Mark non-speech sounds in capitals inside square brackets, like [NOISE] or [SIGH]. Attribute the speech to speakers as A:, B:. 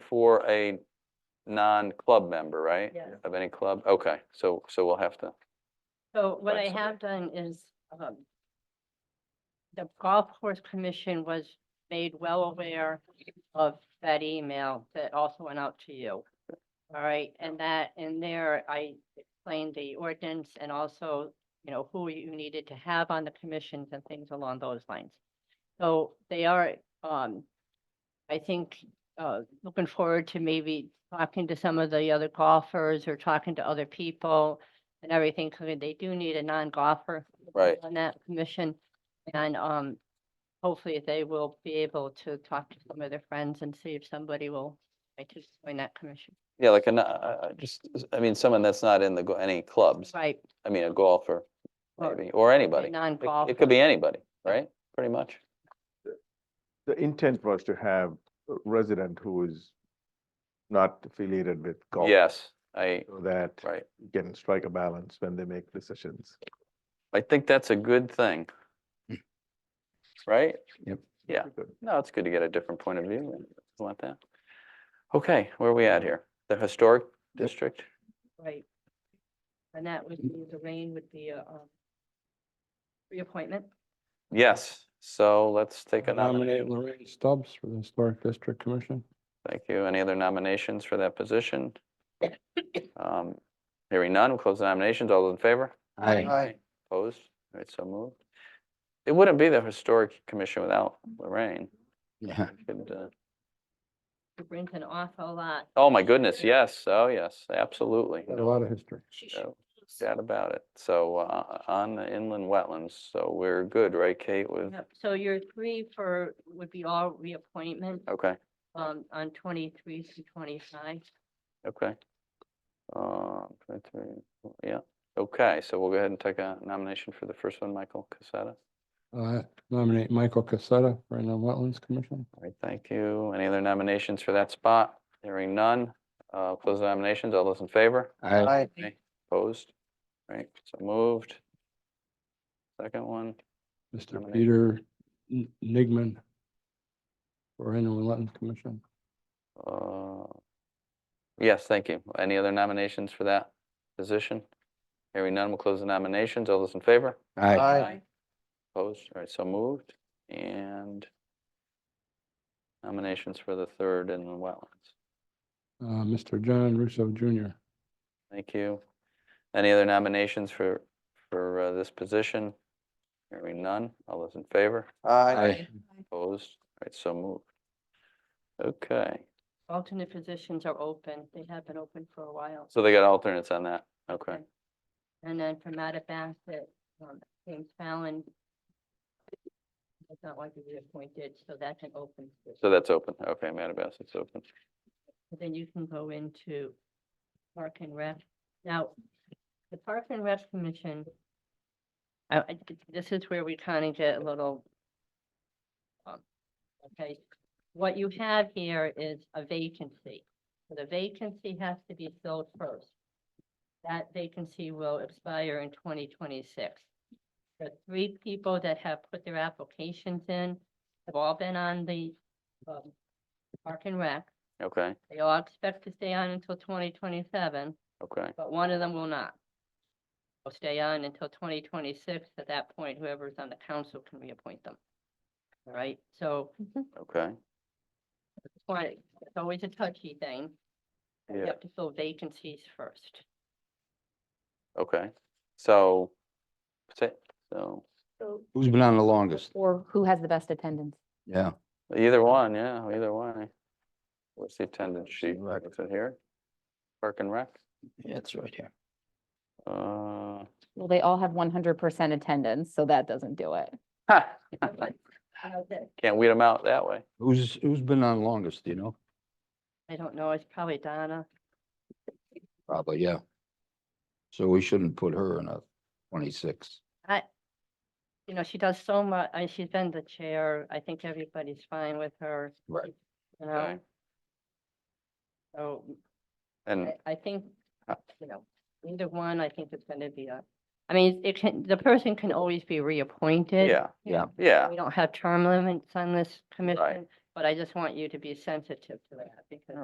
A: for a non-club member, right?
B: Yes.
A: Of any club? Okay, so, so we'll have to,
B: So what I
A: Right, so-
B: have done is, um, the golf course commission was made well aware of that email that also went out to you. All right, and that, in there, I explained the ordinance and also, you know, who you needed to have on the commissions and things along those lines. So they are, um, I think, uh, looking forward to maybe talking to some of the other golfers or talking to other people and everything, because they do need a non-golfer.
A: Right.
B: On that commission, and, um, hopefully they will be able to talk to some of their friends and see if somebody will, like, to join that commission.
A: yeah, like, a no- uh, uh, just, I mean, someone that's not in the, go- any clubs,
B: Right,
A: I mean, a golfer,
B: Or
A: maybe, or anybody. It- It
B: non-golfer,
A: could be anybody, right? Pretty much.
C: The intent was to have a resident who is not affiliated with golf.
A: Yes, I,
C: So that
A: right.
C: you can strike a balance when they make decisions.
A: I think that's a good thing. Right? Yeah.
C: Pretty good.
A: No, it's good to get a different point of view. and I Want that? Okay, where are we at here? The historic district?
B: right. And that would be, the rain would be a, um, reappointment.
A: Yes, so let's take a
D: I
A: nomination.
D: Nominate Lorraine Stubbs for the Historic District Commission.
A: Thank you. Any other nominations for that position? Um, Hearing none, we'll close the nominations. All those in favor? Aye. Opposed? All right, so moved. It wouldn't be the Historic Commission without Lorraine.
D: Yeah.
A: Could, uh,
B: It brings an awful lot.
A: Oh, my goodness, yes, oh, yes, absolutely.
D: A lot of history.
A: No Doubt about it. So uh, on the inland wetlands, so we're good, right, Kate, with,
B: Yep, So your three for, would be all reappointment,
A: okay,
B: um, on twenty-three through twenty-five.
A: okay. Uh, that's very- Yeah, okay, so we'll go ahead and take a nomination for the first one, Michael Casada.
D: Uh, Nominate Michael Casetta for the Wetlands Commission.
A: All right, thank you. Any other nominations for that spot? Hearing none. Uh, Close the nominations. All those in favor?
D: Aye.
A: Opposed? All Right, so moved. Second one,
D: Mr.
A: Nominate.
D: Peter N- Nigman for the Wetlands Commission.
A: Uh, Yes, thank you. Any other nominations for that position? Hearing none, we'll close the nominations. All those in favor? Opposed? All right, so moved. And nominations for the third in the wetlands.
D: Uh, Mr. John Russo Jr.
A: Thank you. Any other nominations for, for uh, this position? Hearing none. All those in favor?
D: Aye.
A: Opposed? All right, so moved. Okay,
B: Alternate positions are open. They have been open for a while.
A: so they got alternates on that. Okay.
B: Okay. And then for Matta Bassett, um, James Fallon. Does not want to be appointed, so that's an open. position.
A: So that's open. Okay, Matabas, it's open.
B: But Then you can go into Park and Rec. Now, the Park and Rec Commission. I, I, this is where we kind of get a little. um, Okay, what you have here is a vacancy. So The vacancy has to be filled first. That vacancy will expire in twenty twenty-six. The three people that have put their applications in have all been on the, um, Park and Rec.
A: Okay,
B: They all expect to stay on until twenty twenty-seven,
A: okay.
B: but one of them will not. Will stay on until twenty twenty-six. At that point, whoever's on the council can reappoint them. All right, so
A: Okay,
B: it's why- it's always a touchy thing. We
A: Yeah.
B: have to fill vacancies first.
A: okay. So, say- so,
E: Who's been on the longest?
F: Or who has the best attendance?
E: Yeah.
A: either one, yeah, either one. What's the attendance sheet?
E: Rec.
A: Is it here? Park and Rec?
E: Yeah, it's right here.
A: Uh, [LAUGHS]
F: Well, they all have one hundred percent attendance, so that doesn't do it.
A: ha,
B: How's that?
A: Can't weed them out that way.
E: Who's, who's been on longest, do you know?
B: I don't know, it's probably Donna.
E: Probably, yeah. So we shouldn't put her in a twenty-six.
B: You know, she does so much, and she's been the chair. I think everybody's fine with her.
E: Right.
B: You
A: Okay.
B: know, so
A: And,
B: I, I think,
A: Uh,
B: you know, either one, I think it's gonna be a, I mean, it can, the person can always be reappointed.
A: yeah,
E: Yeah.
A: yeah,
B: We don't have term limits on this commission, but I just want you to be sensitive to that because